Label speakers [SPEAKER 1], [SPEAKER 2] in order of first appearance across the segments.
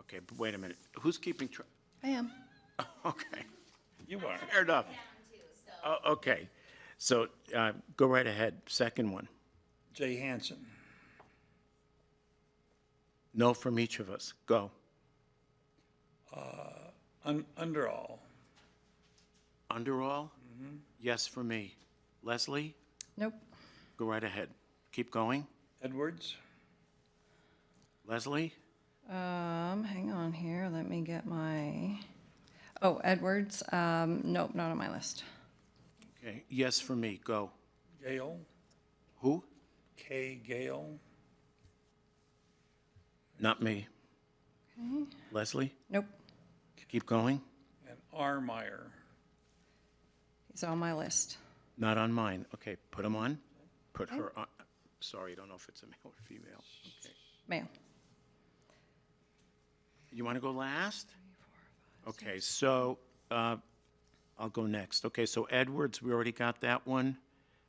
[SPEAKER 1] Okay, but wait a minute. Who's keeping track?
[SPEAKER 2] I am.
[SPEAKER 1] Okay,
[SPEAKER 3] You are.
[SPEAKER 1] fair enough. Oh, Okay, so uh, go right ahead. Second one.
[SPEAKER 3] Jay Hanson.
[SPEAKER 1] No from each of us. Go.
[SPEAKER 3] Un- under all.
[SPEAKER 1] Under all? Yes for me. Leslie,
[SPEAKER 2] Nope.
[SPEAKER 1] go right ahead. Keep going.
[SPEAKER 3] Edwards.
[SPEAKER 1] Leslie?
[SPEAKER 2] Um, hang on here. Let me get my, oh, Edwards. Um, nope, not on my list.
[SPEAKER 1] Okay, yes for me. Go.
[SPEAKER 3] Gale.
[SPEAKER 1] Who?
[SPEAKER 3] Kay Gale.
[SPEAKER 1] Not me. Leslie,
[SPEAKER 2] Nope.
[SPEAKER 1] keep going.
[SPEAKER 3] And R. Meyer.
[SPEAKER 2] He's on my list.
[SPEAKER 1] Not on mine. Okay, put them on. Put her on. Sorry, I don't know if it's a male or female. Okay.
[SPEAKER 2] Male.
[SPEAKER 1] You want to go last? Okay, so uh, I'll go next. Okay, so Edwards, we already got that one.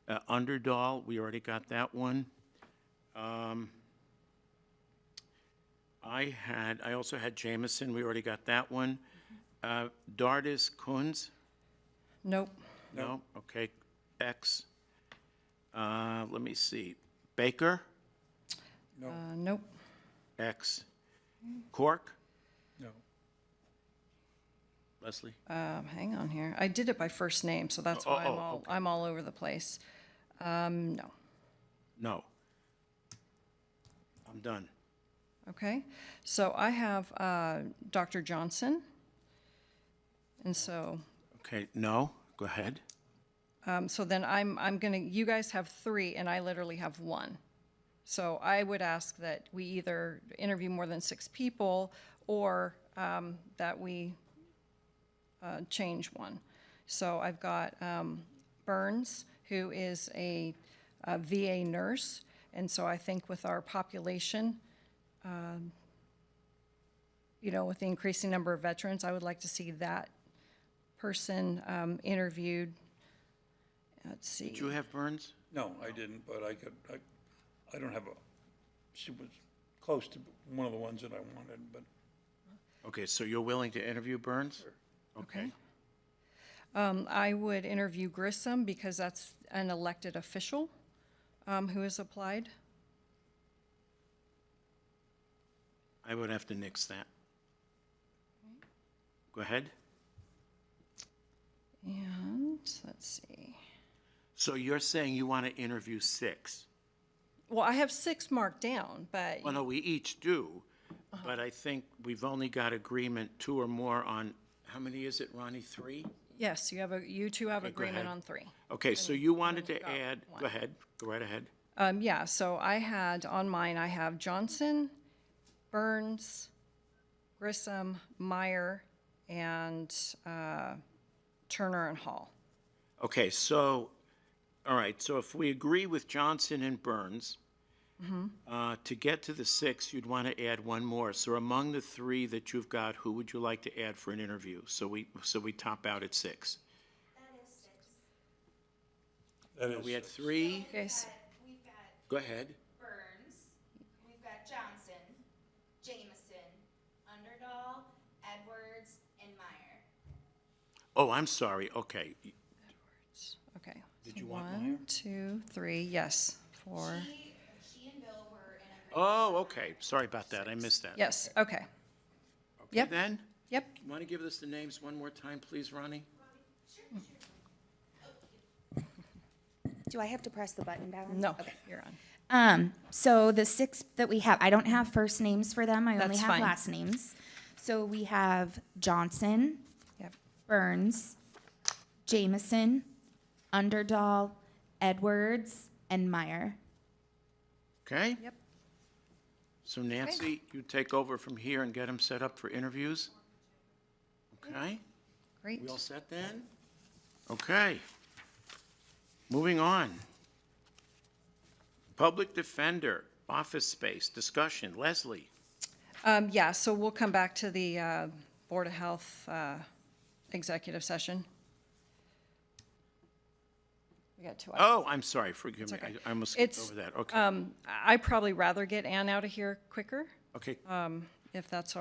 [SPEAKER 1] Uh, Underdahl, we already got that one. Um, I had, I also had Jameson, we already got that one. Uh, Dardis Kunz,
[SPEAKER 2] Nope.
[SPEAKER 1] no? Okay, X. Uh, Let me see, Baker,
[SPEAKER 3] No,
[SPEAKER 2] Uh, nope.
[SPEAKER 1] X. Cork,
[SPEAKER 3] no.
[SPEAKER 1] Leslie?
[SPEAKER 2] Um, hang on here. I did it by first name, so that's
[SPEAKER 1] Oh,
[SPEAKER 2] why I'm
[SPEAKER 1] oh,
[SPEAKER 2] all,
[SPEAKER 1] okay.
[SPEAKER 2] I'm all over the place. Um, no.
[SPEAKER 1] No. I'm done.
[SPEAKER 2] Okay, so I have uh, Dr. Johnson. And so,
[SPEAKER 1] Okay, no, go ahead.
[SPEAKER 2] um, so then I'm, I'm gonna, you guys have three and I literally have one. So I would ask that we either interview more than six people or um, that we uh, change one. So I've got um, Burns, who is a uh, VA nurse. And so I think with our population, um, you know, with the increasing number of veterans, I would like to see that person um, interviewed. Let's see.
[SPEAKER 1] Did you have Burns?
[SPEAKER 3] No, I didn't, but I could, I, I don't have a, she was close to one of the ones that I wanted, but
[SPEAKER 1] Okay, so you're willing to interview Burns? Okay.
[SPEAKER 2] Um, I would interview Grissom because that's an elected official um, who has applied.
[SPEAKER 1] I would have to nix that. Go ahead.
[SPEAKER 2] And let's see.
[SPEAKER 1] So you're saying you want to interview six?
[SPEAKER 2] Well, I have six marked down, but
[SPEAKER 1] Well, no, we each do, but I think we've only got agreement two or more on, how many is it, Ronnie? Three?
[SPEAKER 2] yes, you have a, you two have agreement
[SPEAKER 1] ahead.
[SPEAKER 2] on three.
[SPEAKER 1] Okay, so you wanted
[SPEAKER 2] we've
[SPEAKER 1] to
[SPEAKER 2] got
[SPEAKER 1] add,
[SPEAKER 2] one.
[SPEAKER 1] go ahead, go right ahead.
[SPEAKER 2] Um, yeah, so I had, on mine, I have Johnson, Burns, Grissom, Meyer, and, uh, Turner and Hall.
[SPEAKER 1] Okay, so, all right, so if we agree with Johnson and Burns, uh, to get to the six, you'd want to add one more. So among the three that you've got, who would you like to add for an interview? So we, so we top out at six.
[SPEAKER 3] that is.
[SPEAKER 1] We had three,
[SPEAKER 2] Okay, so,
[SPEAKER 4] We've got
[SPEAKER 1] go ahead.
[SPEAKER 4] Burns, we've got Johnson, Jameson, Underdahl, Edwards, and Meyer.
[SPEAKER 1] Oh, I'm sorry, okay.
[SPEAKER 2] okay.
[SPEAKER 1] Did
[SPEAKER 2] So
[SPEAKER 1] you want
[SPEAKER 2] one, two, three, yes, four,
[SPEAKER 4] She, she and Bill were in a.
[SPEAKER 1] Oh, okay, sorry about that, I missed that.
[SPEAKER 2] yes, okay,
[SPEAKER 1] Okay,
[SPEAKER 2] yep.
[SPEAKER 1] Then,
[SPEAKER 2] yep.
[SPEAKER 1] want to give us the names one more time, please, Ronnie?
[SPEAKER 5] Do I have to press the button down?
[SPEAKER 2] No, you're on.
[SPEAKER 5] Um, so the six that we have, I don't have first names for them. I only
[SPEAKER 2] That's
[SPEAKER 5] have
[SPEAKER 2] fine.
[SPEAKER 5] last names. So we have Johnson,
[SPEAKER 2] Yep,
[SPEAKER 5] Burns, Jameson, Underdahl, Edwards, and Meyer.
[SPEAKER 1] Okay?
[SPEAKER 2] Yep.
[SPEAKER 1] So Nancy, you take over from here and get them set up for interviews? Okay?
[SPEAKER 2] great.
[SPEAKER 1] We all set then? Okay. Moving on. Public Defender, office space, discussion. Leslie,
[SPEAKER 2] Um, yeah, so we'll come back to the, uh, Board of Health, uh, executive session. We got two hours.
[SPEAKER 1] oh, I'm sorry, forgive me,
[SPEAKER 2] okay.
[SPEAKER 1] I I almost skipped
[SPEAKER 2] It's, uh,
[SPEAKER 1] over that. Okay,
[SPEAKER 2] Um, I- I'd probably rather get Ann out of here quicker,
[SPEAKER 1] okay.
[SPEAKER 2] if that's all